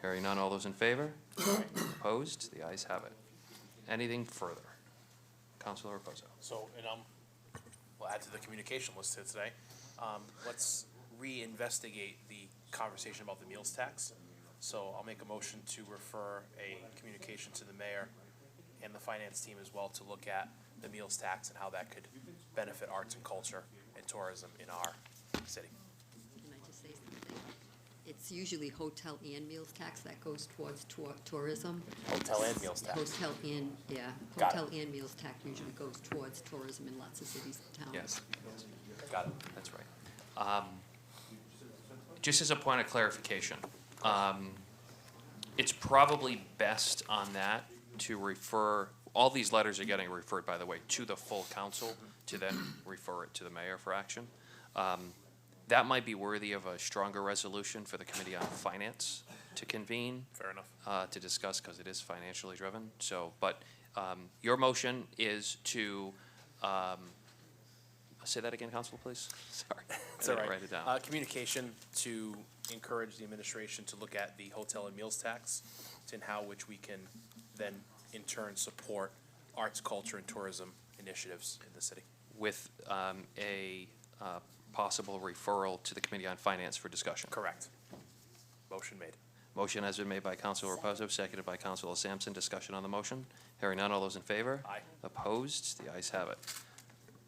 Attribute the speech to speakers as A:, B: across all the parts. A: Hearing none, all those in favor? Opposed? The ayes have it. Anything further? Counselor Raposo.
B: So, and um, we'll add to the communication list here today. Um, let's reinvestigate the conversation about the meals tax. So I'll make a motion to refer a communication to the mayor and the finance team as well to look at the meals tax and how that could benefit arts and culture and tourism in our city.
C: Can I just say something? It's usually hotel and meals tax that goes towards tour- tourism.
B: Hotel and meals tax.
C: Hotel and, yeah,
B: Got it.
C: hotel and meals tax usually goes towards tourism in lots of cities and towns.
A: Yes,
B: Got it.
A: that's right. Um, Just as a point of clarification, um, it's probably best on that to refer, all these letters are getting referred, by the way, to the full council to then refer it to the mayor for action. Um, That might be worthy of a stronger resolution for the Committee on Finance to convene
B: Fair enough.
A: uh, to discuss because it is financially driven. So, but um, your motion is to, um, say that again, Council, please? Sorry.
B: It's
A: I
B: all
A: didn't
B: right.
A: Write it
B: Uh,
A: down.
B: communication to encourage the administration to look at the hotel and meals tax and how which we can then in turn support arts, culture, and tourism initiatives in the city.
A: With um, a uh, possible referral to the Committee on Finance for discussion.
B: Correct. Motion made.
A: Motion has been made by Council Reposo, seconded by Council Sampson. Discussion on the motion. Hearing none. All those in favor?
B: Aye.
A: Opposed? The ayes have it.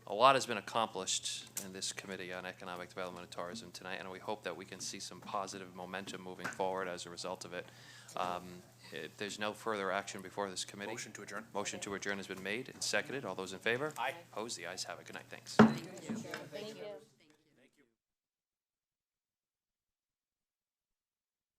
A: A lot has been accomplished in this Committee on Economic Development and Tourism tonight, and we hope that we can see some positive momentum moving forward as a result of it. Um, If there's no further action before this committee.
B: Motion to adjourn.
A: Motion to adjourn has been made and seconded. All those in favor?
B: Aye.
A: Opposed? The ayes have it. Good night. Thanks.
D: Thank you.